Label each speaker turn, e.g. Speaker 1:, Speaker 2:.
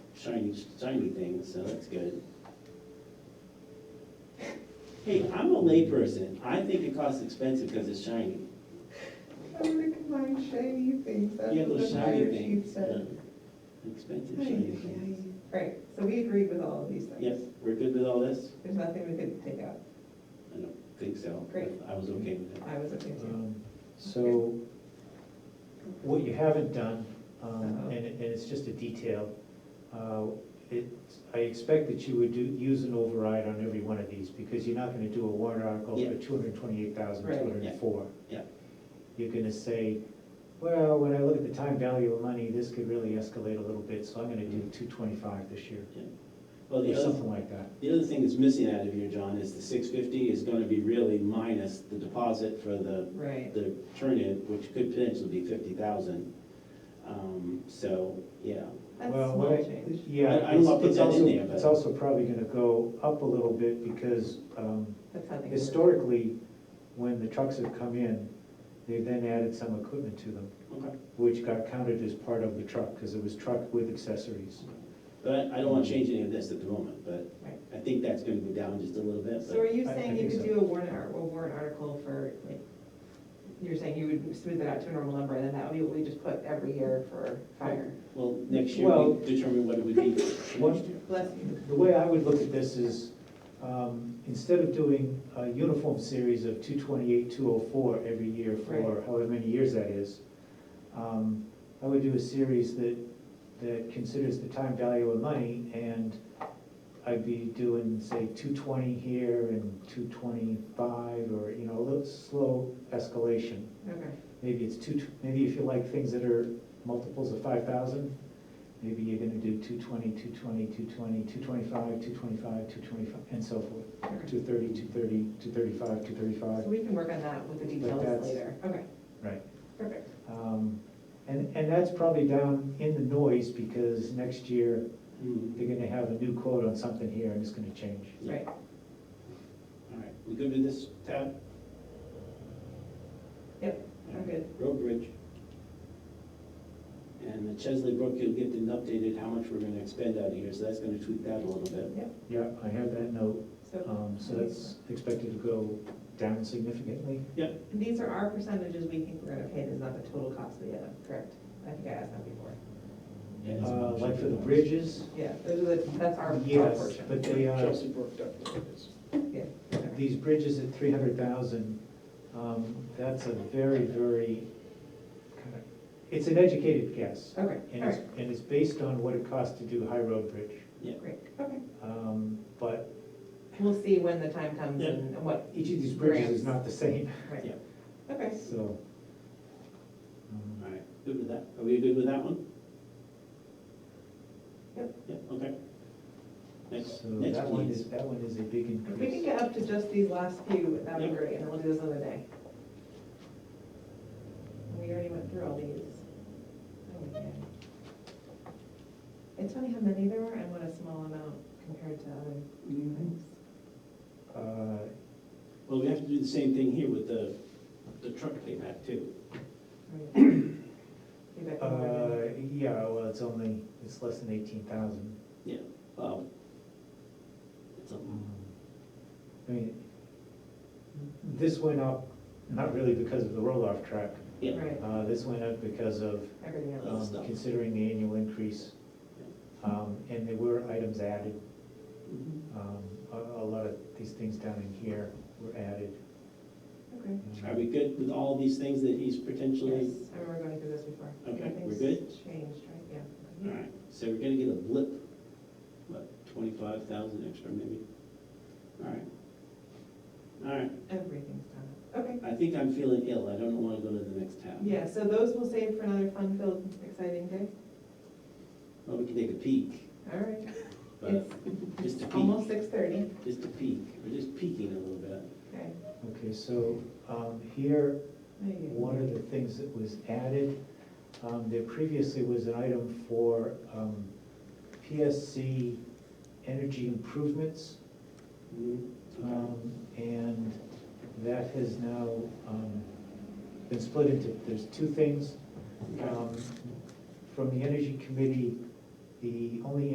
Speaker 1: shiny, shiny things, so that's good. Hey, I'm a layperson, I think it costs expensive because it's shiny.
Speaker 2: I wouldn't combine shiny things, that's
Speaker 1: Yeah,
Speaker 2: what the
Speaker 1: those shiny
Speaker 2: fire chief
Speaker 1: things.
Speaker 2: said.
Speaker 1: yeah. Expensive
Speaker 2: Ay,
Speaker 1: shiny
Speaker 2: ay,
Speaker 1: things.
Speaker 2: ay. Right, so we agreed with all of these things.
Speaker 1: Yep, we're good with all this?
Speaker 2: There's nothing we could take out,
Speaker 1: I don't think so.
Speaker 2: Great.
Speaker 1: I was okay with it.
Speaker 2: I was okay too.
Speaker 3: Um, So, what you haven't done,
Speaker 1: Uh-huh.
Speaker 3: um, and, and it's just a detail, uh, it, I expect that you would do, use an override on every one of these, because you're not gonna do a warrant article
Speaker 1: Yeah.
Speaker 3: for two hundred and twenty-eight thousand, two hundred and four.
Speaker 1: Yeah.
Speaker 3: You're gonna say, well, when I look at the time value of money, this could really escalate a little bit, so I'm gonna do two twenty-five this year,
Speaker 1: Mm-hmm. Well,
Speaker 3: or
Speaker 1: the other,
Speaker 3: something like that.
Speaker 1: the other thing that's missing out of here, John, is the six fifty is gonna be really minus the deposit for the,
Speaker 2: Right,
Speaker 1: the turn-in, which could potentially be fifty thousand. Um, so, yeah,
Speaker 2: that's
Speaker 3: Well,
Speaker 2: small
Speaker 3: what I-
Speaker 2: change.
Speaker 3: Yeah,
Speaker 1: I- I don't
Speaker 3: it's
Speaker 1: wanna put
Speaker 3: it's
Speaker 1: that in
Speaker 3: also,
Speaker 1: there, but-
Speaker 3: it's also probably gonna go up a little bit, because, um,
Speaker 2: That's how they work.
Speaker 3: Historically, when the trucks have come in, they've then added some equipment to them,
Speaker 1: okay.
Speaker 3: which got counted as part of the truck, because it was truck with accessories.
Speaker 1: But I- I don't wanna change any of this at the moment, but
Speaker 2: Mm-hmm. Right.
Speaker 1: I think that's gonna go down just a little bit,
Speaker 2: So
Speaker 1: but
Speaker 2: are you
Speaker 3: I- I
Speaker 2: saying you
Speaker 3: think
Speaker 2: could
Speaker 3: so.
Speaker 2: do a warrant, ar- a warrant article for, like, you're saying you would smooth it out to a normal number, and then that would be what we just put every year for fire?
Speaker 1: well, next year
Speaker 3: Well-
Speaker 1: we determine what it would be for
Speaker 3: One-
Speaker 1: next year.
Speaker 2: Bless you.
Speaker 3: The way I would look at this is, um, instead of doing a uniform series of two twenty-eight, two oh four every year for
Speaker 2: Right.
Speaker 3: however many years that is, um, I would do a series that, that considers the time value of money, and I'd be doing, say, two twenty here and two twenty-five, or, you know, a little slow escalation.
Speaker 2: Okay,
Speaker 3: Maybe it's two, maybe if you like things that are multiples of five thousand, maybe you're gonna do two twenty, two twenty, two twenty, two twenty-five, two twenty-five, two twenty-five, and so forth.
Speaker 2: okay.
Speaker 3: Two thirty, two thirty, two thirty-five, two
Speaker 2: So
Speaker 3: thirty-five.
Speaker 2: we can work on that with the details
Speaker 3: that's-
Speaker 2: later. Okay,
Speaker 3: Right.
Speaker 2: perfect.
Speaker 3: Um, and, and that's probably down in the noise, because next year,
Speaker 1: Hmm,
Speaker 3: they're gonna have a new quote on something here, and it's gonna change.
Speaker 1: Yeah.
Speaker 2: Right,
Speaker 1: All right, we good with this, Tab?
Speaker 2: Yep, I'm good.
Speaker 1: Road bridge. And the Chesley Brook, you'll get an updated how much we're gonna expend out of here, so that's gonna tweak that a little bit.
Speaker 3: Yeah, I have that note,
Speaker 2: so
Speaker 3: um, so that's expected to go down significantly.
Speaker 2: these are our percentages we think we're gonna pay, this is not the total cost of the item, correct? I think I asked that before.
Speaker 1: And it's-
Speaker 3: Uh, like for the bridges,
Speaker 2: Yeah, those are the, that's our our
Speaker 3: yes,
Speaker 2: portion.
Speaker 3: but they are.
Speaker 4: Chelsea Brook definitely is.
Speaker 2: Yeah, okay.
Speaker 3: these bridges at three hundred thousand, um, that's a very, very kind of, it's an educated guess.
Speaker 2: Okay,
Speaker 3: And
Speaker 2: all
Speaker 3: it's,
Speaker 2: right,
Speaker 3: and it's based on what it costs to do High Road Bridge.
Speaker 2: great, okay.
Speaker 3: Um, but
Speaker 2: We'll see when the time comes
Speaker 1: Yeah.
Speaker 2: and and what.
Speaker 3: each of these bridges is
Speaker 2: grants.
Speaker 3: not the same,
Speaker 2: Right,
Speaker 1: Yeah.
Speaker 2: okay,
Speaker 3: so. um,
Speaker 1: All right, good with that, are we good with that one?
Speaker 2: Yep.
Speaker 1: Yep, okay. Next,
Speaker 3: So
Speaker 1: next
Speaker 3: that one
Speaker 1: please.
Speaker 3: is, that one is a big
Speaker 2: if we can
Speaker 3: increase.
Speaker 2: get up to just these last few, that'd
Speaker 1: Yeah.
Speaker 2: be great, and then we'll do this another day. We already went through all these. Oh, yeah. It's funny how many there are and what a small amount compared to other things.
Speaker 3: Uh,
Speaker 1: Well, we have to do the same thing here with the, the truck payback too.
Speaker 2: Maybe I can
Speaker 3: uh,
Speaker 2: remember.
Speaker 3: yeah, well, it's only, it's less than eighteen thousand.
Speaker 1: Well, it's a,
Speaker 3: I mean, this went up, not really because of the roll-off track,
Speaker 1: yeah,
Speaker 2: Right,
Speaker 3: Uh, This went up because of
Speaker 2: everything else.
Speaker 3: um,
Speaker 1: Stuff.
Speaker 3: considering the annual increase. Um, And there were items added.
Speaker 1: Mhm.
Speaker 3: Um, A a lot of these things down in here were added.
Speaker 1: Oh.
Speaker 2: Okay.
Speaker 1: are we good with all these things that he's potentially?
Speaker 2: Yes, I remember going through this before.
Speaker 1: Okay, we're
Speaker 2: Nothing's
Speaker 1: good?
Speaker 2: Changed, right, yeah.
Speaker 1: All right, so we're gonna get a blip, what, twenty-five thousand extra maybe? All right. All right,
Speaker 2: Everything's done, okay.
Speaker 1: I think I'm feeling ill, I don't wanna go to the next tab.
Speaker 2: Yeah, so those we'll save for another fun-filled, exciting day.
Speaker 1: Well, we can take a peek,
Speaker 2: All right,
Speaker 1: but just a
Speaker 2: it's
Speaker 1: peek,
Speaker 2: almost six thirty,
Speaker 1: just a peek, we're just peeking a little bit.
Speaker 2: okay.
Speaker 3: Okay, so um, here,
Speaker 2: There you go.
Speaker 3: one of the things that was added, um, there previously was an item for um, PSC energy improvements.
Speaker 1: Mhm. Okay.
Speaker 3: Um, And that has now um, been split into, there's two things.
Speaker 1: Okay.
Speaker 3: Um, From the Energy Committee, the only